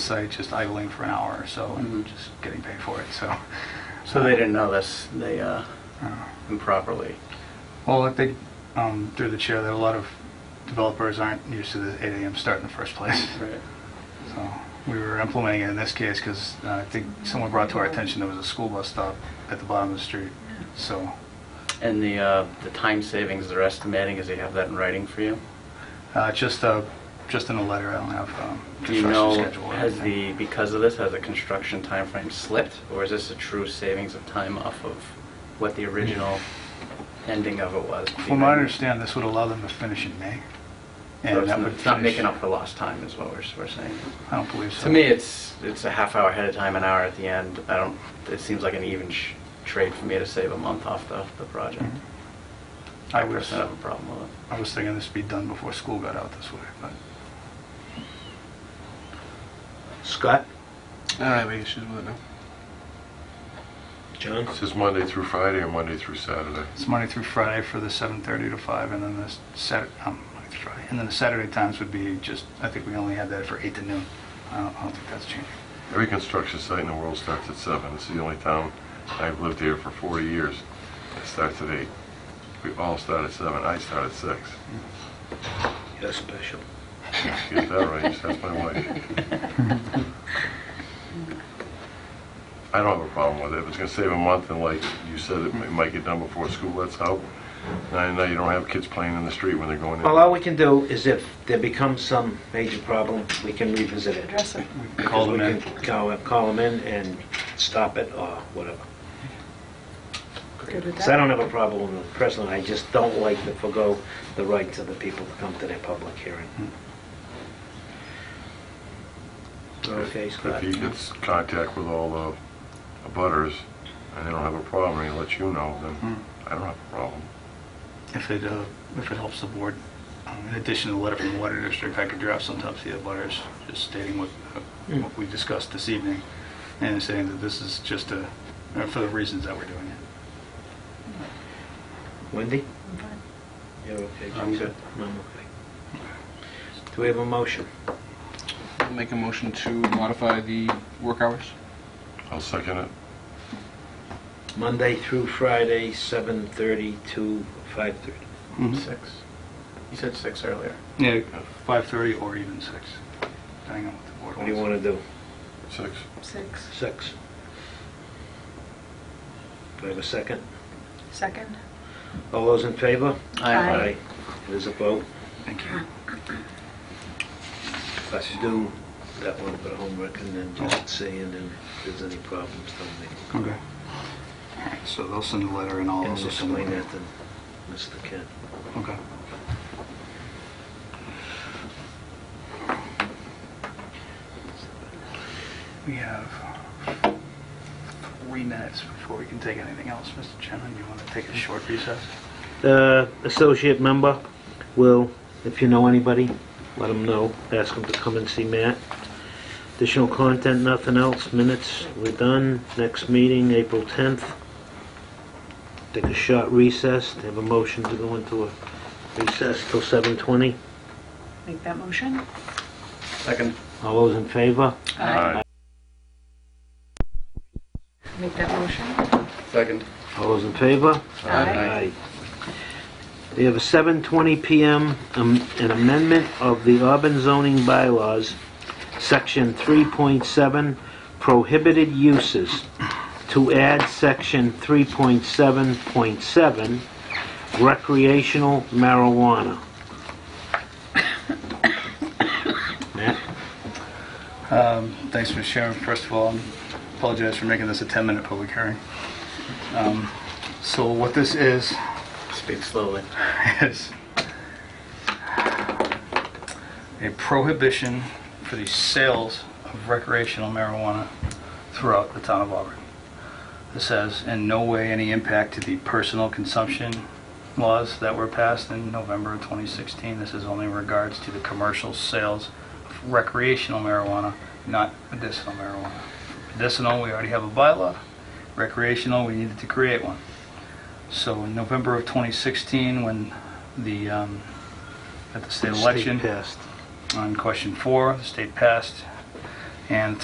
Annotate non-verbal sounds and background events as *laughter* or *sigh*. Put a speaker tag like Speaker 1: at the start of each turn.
Speaker 1: site just idling for an hour or so and just getting paid for it, so.
Speaker 2: So they didn't know this, they, uh,
Speaker 1: Oh.
Speaker 2: improperly.
Speaker 1: Well, I think, um, through the chair, that a lot of developers aren't used to the 8 AM start in the first place.
Speaker 2: Right.
Speaker 1: So we were implementing it in this case because I think someone brought to our attention there was a school bus stop at the bottom of the street. So
Speaker 2: And the, uh, the time savings they're estimating, is they have that in writing for you?
Speaker 1: uh, just, uh, just in a letter, I don't have um,
Speaker 2: Do you
Speaker 1: construction
Speaker 2: know,
Speaker 1: schedule. or
Speaker 2: has
Speaker 1: anything.
Speaker 2: the, because of this, has the construction time frame slipped? Or is this a true savings of time off of what the original ending of it was?
Speaker 1: From what I understand, this would allow them to finish in May.
Speaker 2: So
Speaker 1: and that
Speaker 2: it's not-
Speaker 1: would
Speaker 2: It's not
Speaker 1: finish-
Speaker 2: making up for lost time is what we're, we're saying.
Speaker 1: I don't believe so.
Speaker 2: To me, it's, it's a half hour ahead of time, an hour at the end. I don't, it seems like an even sh- trade for me to save a month off the, the project.
Speaker 1: Mhm.
Speaker 2: I
Speaker 1: I was-
Speaker 2: personally have a problem with it.
Speaker 1: I was thinking this would be done before school got out this way, but
Speaker 3: Scott?
Speaker 4: I don't have any issues with it, no.
Speaker 3: John?
Speaker 5: This is Monday through Friday or Monday through Saturday?
Speaker 1: it's Monday through Friday for the 7:30 to 5, and then the Saturday, Monday through Friday, and then the Saturday times would be just, I think we only had that for 8 to noon. I don't I don't think that's changing.
Speaker 5: Every construction site in the world starts at seven. It's the only town, I've lived here for 40 years, that starts at eight. We all start at seven. I start at six. *laughs*
Speaker 3: You're special.
Speaker 5: Get that right, just ask my wife. I don't have a problem with it. If it's gonna save a month and like you said, it mi- might get done before school lets out. And I know you don't have kids playing in the street when they're going in.
Speaker 3: Well, all we can do is if there becomes some major problem, we can revisit it.
Speaker 6: address it.
Speaker 1: We can Call them
Speaker 3: We
Speaker 1: in.
Speaker 3: can Call, call them in and stop it or whatever.
Speaker 6: Good with
Speaker 3: Because I
Speaker 6: that?
Speaker 3: don't have a problem with the president, I just don't like to forego the rights of the people to come to their public hearing. Okay,
Speaker 5: If
Speaker 3: Scott?
Speaker 5: he gets contact with all the abutters and they don't have a problem, and he lets you know, then I don't have a problem.
Speaker 1: Hmm. If it, uh, if it helps the board, um, in addition to the letter from the water district, I could draft some top the butters, just stating what, uh,
Speaker 3: Mm.
Speaker 1: what we discussed this evening, and saying that this is just a, uh, for the reasons that we're doing it.
Speaker 3: Wendy?
Speaker 6: I'm fine.
Speaker 3: You're okay?
Speaker 2: I'm
Speaker 3: Jason?
Speaker 2: good.
Speaker 3: I'm okay. Do we have a motion?
Speaker 4: Make a motion to modify the work hours?
Speaker 5: I'll second it.
Speaker 3: Monday through Friday, 7:30 to 5:30.
Speaker 1: Mm-hmm.
Speaker 2: Six. You said six earlier.
Speaker 1: Yeah, 5:30 or even six, depending on what the board
Speaker 3: What do you
Speaker 1: wants.
Speaker 3: want to do?
Speaker 5: Six.
Speaker 6: Six.
Speaker 3: Six. Do I have a second?
Speaker 6: Second?
Speaker 3: All those in favor?
Speaker 6: Aye.
Speaker 3: It is a vote.
Speaker 1: Thank you.
Speaker 3: Let's do that one for homework and then just see, and then if there's any problems, then
Speaker 1: Okay. All right, so they'll send a letter and I'll
Speaker 3: we can
Speaker 1: also send a
Speaker 3: explain
Speaker 1: letter.
Speaker 3: that to Mr. Kent.
Speaker 1: Okay. We have three minutes before we can take anything else. Mr. Chairman, you want to take a short recess?
Speaker 3: The uh, associate member will, if you know anybody, let them know, ask them to come and see Matt. Additional content, nothing else, minutes, we're done. Next meeting, April 10th. Take a short recess, have a motion to go into a recess till 7:20.
Speaker 6: Make that motion?
Speaker 2: Second.
Speaker 3: All those in favor?
Speaker 5: Aye.
Speaker 6: Make that motion?
Speaker 2: Second.
Speaker 3: All those in favor?
Speaker 2: Aye.
Speaker 3: We have a 7:20 PM, um, an amendment of the Auburn zoning bylaws, Section 3.7, prohibited uses, to add Section 3.7.7, recreational marijuana. *coughs* Matt?
Speaker 1: Thanks, Mr. Chairman. First of all, I apologize for making this a 10-minute public hearing. Um, So what this is, *laughs*
Speaker 2: Speak slowly.
Speaker 1: is a prohibition for the sales of recreational marijuana throughout the town of Auburn. This has in no way any impact to the personal consumption laws that were passed in November of 2016. This is only in regards to the commercial sales of recreational marijuana, not medicinal marijuana. Medicinal, we already have a bylaw. Recreational, we needed to create one. So in November of 2016, when the, um, at the state election
Speaker 3: State passed.
Speaker 1: on question four, the state passed and